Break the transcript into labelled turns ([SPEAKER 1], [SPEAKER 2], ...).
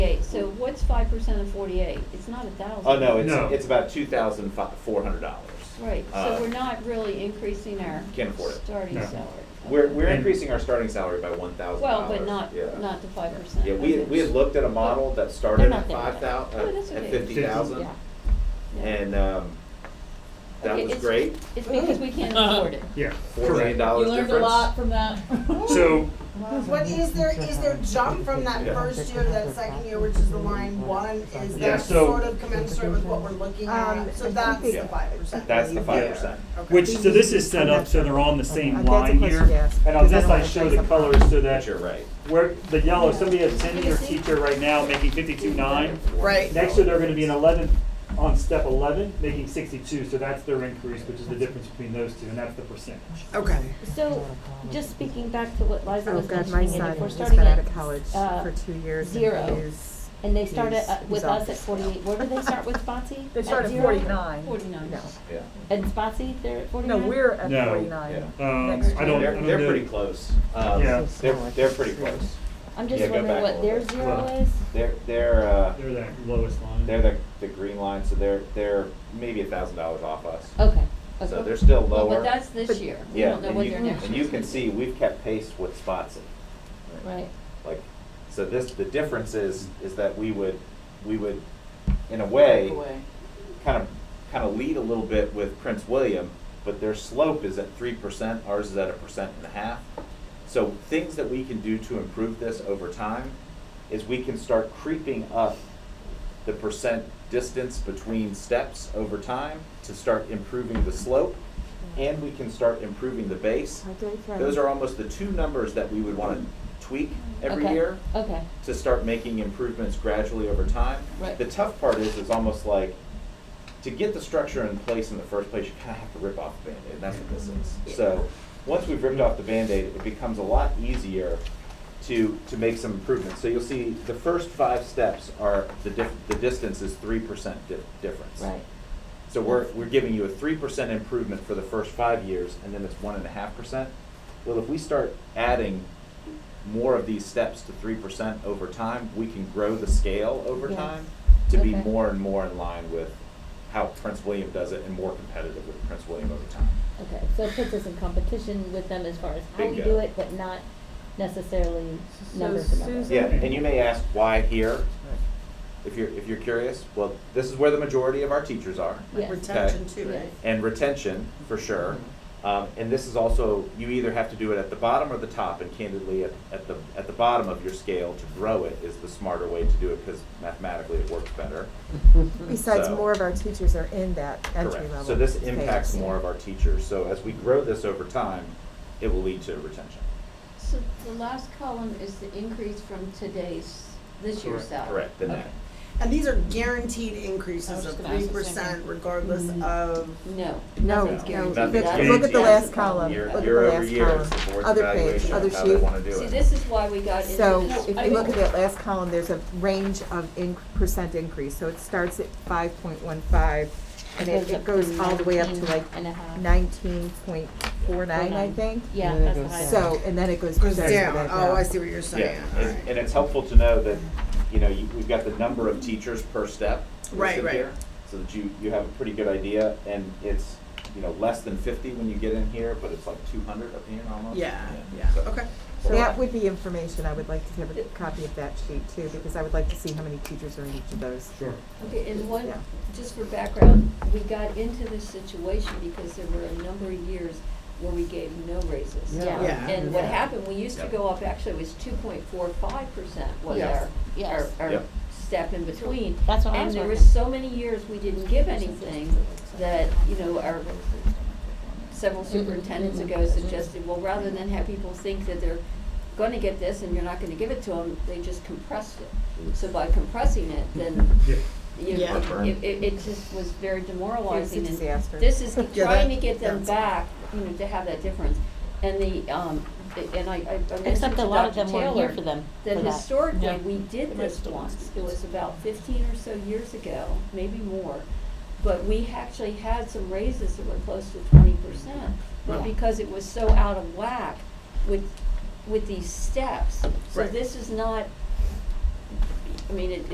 [SPEAKER 1] what's five percent of forty-eight? It's not a thousand.
[SPEAKER 2] Oh, no,
[SPEAKER 3] No.
[SPEAKER 2] it's, it's about two thousand four hundred dollars. Uh,
[SPEAKER 1] Right, so we're not really increasing our.
[SPEAKER 2] Can't afford it.
[SPEAKER 1] Starting
[SPEAKER 3] No.
[SPEAKER 1] salary.
[SPEAKER 2] We're, we're
[SPEAKER 3] And-
[SPEAKER 2] increasing our starting salary by one thousand
[SPEAKER 1] Well,
[SPEAKER 2] dollars.
[SPEAKER 1] but not, not to five percent.
[SPEAKER 2] Yeah, we, had- we had looked at a model that started
[SPEAKER 1] not
[SPEAKER 2] at
[SPEAKER 1] there yet.
[SPEAKER 2] five thou,
[SPEAKER 1] Oh,
[SPEAKER 2] uh,
[SPEAKER 1] that's
[SPEAKER 2] at
[SPEAKER 1] okay.
[SPEAKER 2] fifty
[SPEAKER 1] Yeah.
[SPEAKER 2] thousand,
[SPEAKER 1] Yeah.
[SPEAKER 2] and, um, that
[SPEAKER 1] Okay,
[SPEAKER 2] was
[SPEAKER 1] it's-
[SPEAKER 2] great,
[SPEAKER 1] It's because we can't afford it.
[SPEAKER 3] Yeah.
[SPEAKER 2] four million
[SPEAKER 3] correct.
[SPEAKER 2] dollars difference.
[SPEAKER 4] from that.
[SPEAKER 3] So,
[SPEAKER 5] What is there, is there jump from that
[SPEAKER 2] Yeah.
[SPEAKER 5] first year to that second year, which is the line one, is
[SPEAKER 3] Yeah,
[SPEAKER 5] that
[SPEAKER 3] so-
[SPEAKER 5] sort of commensurate with what we're looking
[SPEAKER 6] Um,
[SPEAKER 5] at? So
[SPEAKER 6] I
[SPEAKER 5] that's
[SPEAKER 6] think
[SPEAKER 5] the
[SPEAKER 2] it-
[SPEAKER 5] five percent.
[SPEAKER 2] That's the five percent.
[SPEAKER 3] which, so this is set up so they're on the
[SPEAKER 6] Uh,
[SPEAKER 3] same
[SPEAKER 6] that's a
[SPEAKER 3] line
[SPEAKER 6] question
[SPEAKER 3] here.
[SPEAKER 6] to ask,
[SPEAKER 3] And on
[SPEAKER 6] because I
[SPEAKER 3] this,
[SPEAKER 6] don't
[SPEAKER 3] I
[SPEAKER 6] wanna
[SPEAKER 3] show
[SPEAKER 6] say
[SPEAKER 3] the
[SPEAKER 6] something
[SPEAKER 3] colors so that
[SPEAKER 2] But you're right.
[SPEAKER 3] where the yellow, somebody has ten-year teacher right now making fifty-two nine.
[SPEAKER 5] Right.
[SPEAKER 3] Next year, they're gonna be an eleven, on step eleven, making sixty-two, so that's their increase, which is the difference between those two, and that's the percentage.
[SPEAKER 5] Okay.
[SPEAKER 1] So, just speaking back to what Liza
[SPEAKER 6] Oh
[SPEAKER 1] was
[SPEAKER 6] God, my
[SPEAKER 1] mentioning, and
[SPEAKER 6] son
[SPEAKER 1] if we're
[SPEAKER 6] has
[SPEAKER 1] starting
[SPEAKER 6] been out
[SPEAKER 1] at,
[SPEAKER 6] of college
[SPEAKER 1] uh,
[SPEAKER 6] for two years. and
[SPEAKER 1] zero,
[SPEAKER 6] he's-
[SPEAKER 1] and they start at,
[SPEAKER 6] he's-
[SPEAKER 1] uh, with
[SPEAKER 6] he's
[SPEAKER 1] us
[SPEAKER 6] off
[SPEAKER 1] at
[SPEAKER 6] the
[SPEAKER 1] forty-eight, where do they start with Spotsy?
[SPEAKER 4] They start at
[SPEAKER 1] zero?
[SPEAKER 4] 49.
[SPEAKER 1] Forty-nine.
[SPEAKER 6] No,
[SPEAKER 2] Yeah,
[SPEAKER 1] And Spotsy, they're at
[SPEAKER 4] No,
[SPEAKER 1] forty-nine?
[SPEAKER 4] we're at
[SPEAKER 3] No.
[SPEAKER 2] yeah.
[SPEAKER 4] forty-nine.
[SPEAKER 3] Um,
[SPEAKER 4] Next
[SPEAKER 3] I
[SPEAKER 4] year.
[SPEAKER 3] don't, I
[SPEAKER 2] They're,
[SPEAKER 3] don't
[SPEAKER 2] they're
[SPEAKER 3] know.
[SPEAKER 2] pretty close. Um,
[SPEAKER 3] Yeah.
[SPEAKER 2] They're, they're pretty close.
[SPEAKER 1] I'm just
[SPEAKER 2] Yeah, go
[SPEAKER 1] wondering
[SPEAKER 2] back a
[SPEAKER 1] what
[SPEAKER 2] little
[SPEAKER 1] their
[SPEAKER 2] bit.
[SPEAKER 1] zero
[SPEAKER 3] Well,
[SPEAKER 1] is.
[SPEAKER 2] They're, they're, uh,
[SPEAKER 3] They're that lowest line.
[SPEAKER 2] they're the, the green line, so they're, they're maybe a thousand dollars off us.
[SPEAKER 1] Okay.
[SPEAKER 2] So
[SPEAKER 1] okay.
[SPEAKER 2] they're still
[SPEAKER 1] Well,
[SPEAKER 2] lower.
[SPEAKER 1] But that's this year. We
[SPEAKER 2] Yeah,
[SPEAKER 1] don't know
[SPEAKER 2] and
[SPEAKER 1] what
[SPEAKER 2] you,
[SPEAKER 1] their next
[SPEAKER 2] and you
[SPEAKER 1] year's
[SPEAKER 2] can
[SPEAKER 1] gonna
[SPEAKER 2] see, we've kept pace with Spotsy.
[SPEAKER 1] be. Right.
[SPEAKER 2] Like, so this, the difference is, is that we would, we would, in a way, kind of, kind of lead a little bit with Prince William, but their slope is at three percent, ours is at a percent and a half. So things that we can do to improve this over time is we can start creeping up the percent distance between steps over time to start improving the slope, and we can start improving the base.
[SPEAKER 6] I don't know.
[SPEAKER 2] Those are almost the two numbers that we would wanna tweak every
[SPEAKER 1] Okay,
[SPEAKER 2] year
[SPEAKER 1] Okay,
[SPEAKER 2] to start making improvements gradually over time.
[SPEAKER 1] Right.
[SPEAKER 2] The tough part is, is almost like, to get the structure in place in the first place, you kinda have to rip off the Band-Aid, and that's what this is. So, once we've ripped off the Band-Aid, it becomes a lot easier to, to make some improvements. So you'll see, the first five steps are, the diff, the distance is three percent di- difference.
[SPEAKER 1] right.
[SPEAKER 2] So we're, we're giving you a three percent improvement for the first five years, and then it's one and a half percent. Well, if we start adding more of these steps to three percent over time, we can grow the scale over
[SPEAKER 1] Yes.
[SPEAKER 2] time to be
[SPEAKER 1] Okay.
[SPEAKER 2] more and more in line with how Prince William does it and more competitive with Prince William over time.
[SPEAKER 1] Okay, so it puts us in competition with them as far as how we
[SPEAKER 2] Bingo.
[SPEAKER 1] do it, but not necessarily
[SPEAKER 4] So
[SPEAKER 1] number for number.
[SPEAKER 4] Susan-
[SPEAKER 2] Yeah, and you may ask why here, if you're, if you're curious. Well, this is where the majority of our teachers are.
[SPEAKER 1] Yes.
[SPEAKER 5] Retention too, right?
[SPEAKER 1] Yes.
[SPEAKER 2] and retention for sure. Um, and this is also you either have to do it at the bottom or the top, and candidly, at, at the at the bottom of your scale to grow it is the smarter way to do it because mathematically it works better.
[SPEAKER 6] Besides,
[SPEAKER 2] so-
[SPEAKER 6] more of our teachers are in that entry level.
[SPEAKER 2] Correct. So this
[SPEAKER 6] phase.
[SPEAKER 2] impacts more of our teachers. So as we grow this over time, it will lead to retention.
[SPEAKER 7] So the last column is the increase from today's, this year's
[SPEAKER 3] Correct.
[SPEAKER 7] salary.
[SPEAKER 2] Correct. The net.
[SPEAKER 5] And these are guaranteed
[SPEAKER 7] I was
[SPEAKER 5] increases of
[SPEAKER 7] just gonna ask
[SPEAKER 5] three
[SPEAKER 7] the same
[SPEAKER 5] percent regardless
[SPEAKER 1] Mm-hmm.
[SPEAKER 5] of,
[SPEAKER 7] No.
[SPEAKER 6] No,
[SPEAKER 7] nothing's
[SPEAKER 6] no,
[SPEAKER 7] guaranteed.
[SPEAKER 6] look at,
[SPEAKER 2] Nothing's
[SPEAKER 6] look at
[SPEAKER 2] guaranteed.
[SPEAKER 6] the last column,
[SPEAKER 2] Year,
[SPEAKER 6] look at the
[SPEAKER 2] year over
[SPEAKER 6] last
[SPEAKER 2] year, it's the
[SPEAKER 6] column,
[SPEAKER 2] board's
[SPEAKER 6] other page,
[SPEAKER 2] evaluation
[SPEAKER 6] other
[SPEAKER 2] of how they
[SPEAKER 6] sheet.
[SPEAKER 2] want to do
[SPEAKER 7] See,
[SPEAKER 2] it.
[SPEAKER 7] this is why we got into.
[SPEAKER 6] So
[SPEAKER 7] this.
[SPEAKER 6] if
[SPEAKER 7] I
[SPEAKER 6] you look at
[SPEAKER 7] mean,
[SPEAKER 6] that last column, there's a range of in, percent increase, so it starts at five point one five, and it, it
[SPEAKER 1] up to
[SPEAKER 6] goes all the way up to
[SPEAKER 1] 19
[SPEAKER 6] like
[SPEAKER 1] and a half.
[SPEAKER 6] nineteen point four nine, I think.
[SPEAKER 1] Yeah,
[SPEAKER 8] And then
[SPEAKER 1] that's
[SPEAKER 8] it
[SPEAKER 1] the high.
[SPEAKER 8] goes
[SPEAKER 1] one.
[SPEAKER 6] So, and then it goes.
[SPEAKER 5] goes
[SPEAKER 6] percentage
[SPEAKER 5] down,
[SPEAKER 6] of that
[SPEAKER 5] oh, I
[SPEAKER 6] down.
[SPEAKER 5] see what you're saying,
[SPEAKER 2] Yeah,
[SPEAKER 5] all
[SPEAKER 2] and, and
[SPEAKER 5] right.
[SPEAKER 2] it's helpful to know that, you know, you, we've got the number of teachers per step. listed
[SPEAKER 5] Right, right.
[SPEAKER 2] here, So that you, you have a pretty good idea, and it's, you know, less than fifty when you get in here, but it's like two hundred up here almost.
[SPEAKER 5] Yeah, yeah,
[SPEAKER 2] So-
[SPEAKER 5] okay.
[SPEAKER 2] so-
[SPEAKER 6] That would be information, I would like to have a copy of that sheet too, because I would like to see how many teachers are in each of those.
[SPEAKER 3] Sure.
[SPEAKER 7] Okay, and one,
[SPEAKER 6] Yeah.
[SPEAKER 7] just for background, we got into this situation because there were a number of years where we gave no raises.
[SPEAKER 1] Yeah. Yeah.
[SPEAKER 5] Yeah.
[SPEAKER 7] And what
[SPEAKER 6] Yeah.
[SPEAKER 7] happened, we used to go up, actually it was two point four five percent was
[SPEAKER 1] Yes.
[SPEAKER 7] our, our,
[SPEAKER 1] Yes.
[SPEAKER 7] our
[SPEAKER 2] Yep.
[SPEAKER 7] step in between.
[SPEAKER 1] That's what I
[SPEAKER 7] And
[SPEAKER 1] was
[SPEAKER 7] there were
[SPEAKER 1] working.
[SPEAKER 7] so many years we didn't give anything that, you know, our several
[SPEAKER 1] Mm-hmm.
[SPEAKER 7] superintendents ago suggested, well, rather than have people think that they're gonna get this and you're not gonna give it to them, they just compressed it. So by compressing it, then
[SPEAKER 3] Yeah.
[SPEAKER 7] you
[SPEAKER 5] Yeah.
[SPEAKER 7] know, it, it, it just was very demoralizing.
[SPEAKER 6] It's a
[SPEAKER 7] and
[SPEAKER 6] disaster.
[SPEAKER 7] This is
[SPEAKER 5] Yeah,
[SPEAKER 7] trying to
[SPEAKER 5] that-
[SPEAKER 7] get them
[SPEAKER 5] that's-
[SPEAKER 7] back, you know, to have that difference. And the, um, a- and I, I- I mentioned
[SPEAKER 1] Except
[SPEAKER 7] to
[SPEAKER 1] a lot of
[SPEAKER 7] Dr.
[SPEAKER 1] them weren't here
[SPEAKER 7] Taylor
[SPEAKER 1] for them, for
[SPEAKER 7] that
[SPEAKER 1] that.
[SPEAKER 7] historically,
[SPEAKER 8] Yeah.
[SPEAKER 7] we did
[SPEAKER 8] The
[SPEAKER 7] this
[SPEAKER 8] rest of
[SPEAKER 7] once.
[SPEAKER 8] us.
[SPEAKER 7] It was about fifteen or so years ago, maybe more. But we actually had some raises that were close to twenty percent. But
[SPEAKER 1] Yeah.
[SPEAKER 7] because it was so out of whack with, with these steps. So
[SPEAKER 5] Right.
[SPEAKER 7] this is not, I mean, it,